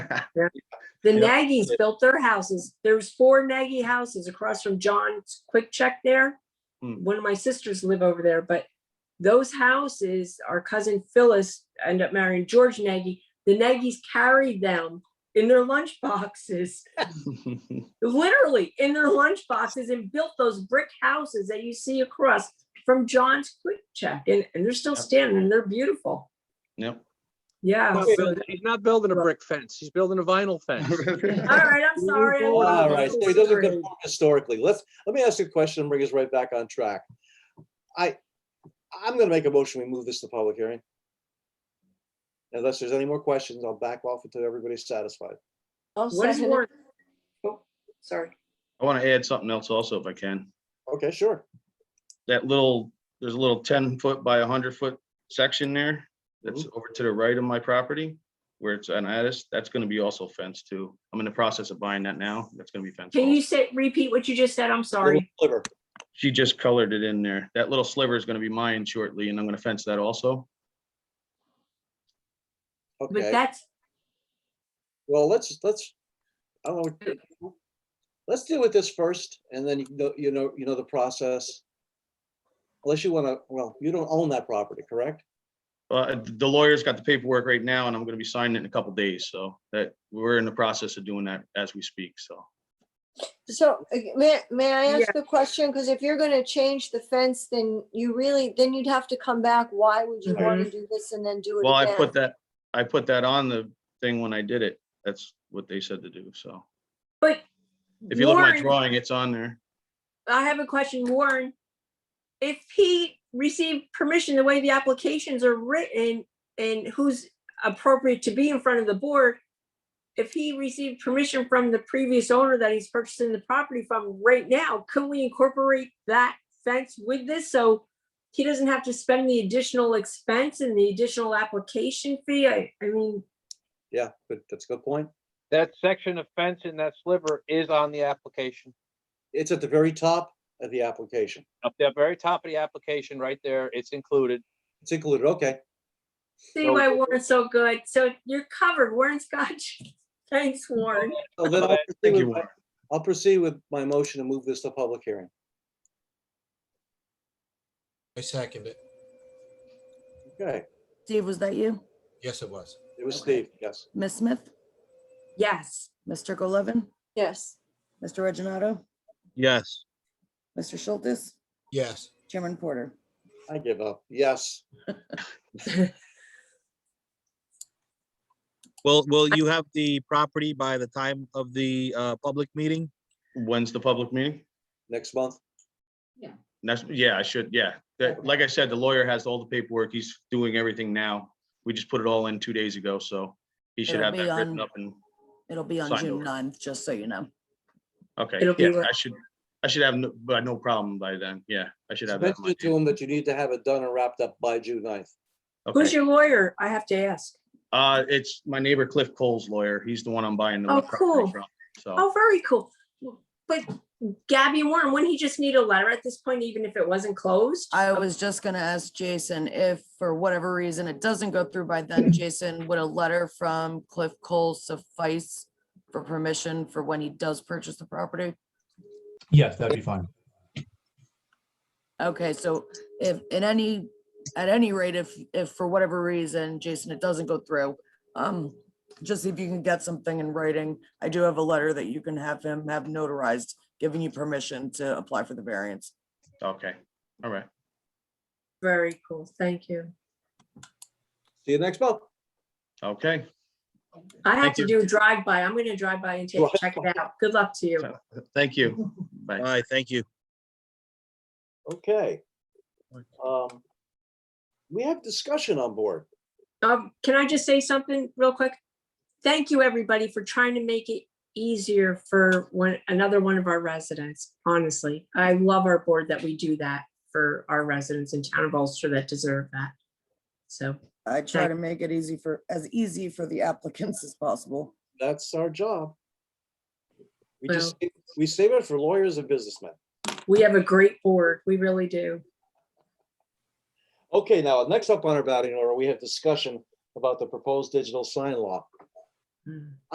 The Yep. Nagy's built their houses. There's four Nagy houses across from John's Quick Check there. Hmm. One of my sisters live over there, but those houses, our cousin Phyllis ended up marrying George Nagy. The Nagy's carried them in their lunch boxes, literally in their lunch boxes and built those brick houses that you see across from John's Quick Check. And, and they're still Yep. standing and they're beautiful. Yep. Yeah. Not so- building- He's not building a brick fence. He's building a vinyl fence. All right, I'm sorry. I All wasn't All right, so he doesn't considering. conform historically. Let's, let me ask you a question and bring us right back on track. I, I'm gonna make a motion, we move this to public hearing. Unless there's any more questions, I'll back off until everybody's satisfied. What is more? Sorry. I want to add something else also if I can. Okay, sure. That little, there's a little ten foot by hundred foot section there that's over to the right of my property where it's an attic. That's going to be also fenced too. I'm in the process of buying that now. That's going to be fenced. Can also. you say, repeat what you just said? I'm sorry. Liver, She just colored it in there. That little sliver is going to be mine shortly and I'm going to fence that also. But okay, that's, well, let's, let's, I don't know. Let's deal with this first and then you know, you know, you know the process. Unless you wanna, well, you don't own that property, correct? Uh, the lawyer's got the paperwork right now and I'm going to be signing it in a couple days. So that we're in the process of doing that as we speak. So. So uh, may, may I Yeah. ask a question? Because if you're gonna change the fence, then you really, then you'd have to come back. Why would you want to do this and then do it Well, I put again? that, I put that on the thing when I did it. That's what they said to do, so. but If you look at my Warren, drawing, it's on there. I have a question, Warren. If he received permission, the way the applications are written and who's appropriate to be in front of the board, if he received permission from the previous owner that he's purchasing the property from right now, could we incorporate that fence with this? So he doesn't have to spend the additional expense and the additional application fee? I, I mean, Yeah, good, that's a good point. That section of fence in that sliver is on the application. It's at the very top of the application. Up there, very top of the application, right there, it's included. It's included, okay. See So- why Warren's so good. So you're covered, Warren Scotch. Thanks, Warren. So then I'll But- proceed Thank with you, my- Warren. I'll proceed with my motion to move this to public hearing. I second it. Okay, Steve, was that you? Yes, it was. it was Okay. Steve, yes. Ms. Smith, Yes. Mr. Golevin, Yes, Mr. Reggino, Yes. Mr. Schultz, Yes. Chairman Porter. I give up, yes. Will, will you have the property by the time of the uh, public meeting? When's the public meeting? Next month, Next, yeah, I should, yeah. That, like I said, the lawyer has all the paperwork. He's doing everything now. We just put it all in two days ago, so he should It'll have be that written on- up and, It'll be on Signed June over. 9th, just so you know. okay, It'll be yeah, what- I should, I should have, no- but no problem by then. Yeah, I should So have that. in mention my it to him that you need to have it done and wrapped up by June 9th. Who's Okay. your lawyer? I have to ask. Uh, it's my neighbor Cliff Cole's lawyer. He's the one I'm buying the Oh, property cool. from, so. Oh, very cool. But Gabby and Warren, wouldn't he just need a letter at this point, even if it wasn't closed? I was just gonna ask Jason if, for whatever reason, it doesn't go through by then, Jason, would a letter from Cliff Cole suffice for permission for when he does purchase the property? Yes, that'd be fine. Okay, so if, in any, at any rate, if, if for whatever reason, Jason, it doesn't go through, um, just if you can get something in writing, I do have a letter that you can have him have notarized, giving you permission to apply for the variance. Okay, all right. Very cool. Thank you. See you next month. Okay, I have Thank to you. do a drive-by. I'm gonna drive by and take, check it out. Good luck to you. thank you. All Bye. right, thank you. Okay. Um, We have discussion on board. Um, can I just say something real quick? Thank you, everybody, for trying to make it easier for one, another one of our residents, honestly. I love our board that we do that for our residents in town of Ulster that deserve that. So, I try Right. to make it easy for, as easy for the applicants as possible. That's our job. We Well- just, we save it for lawyers and businessmen. we have a great board, we really do. Okay, now, next Mm. up on our batting order, we have discussion about the proposed digital sign law.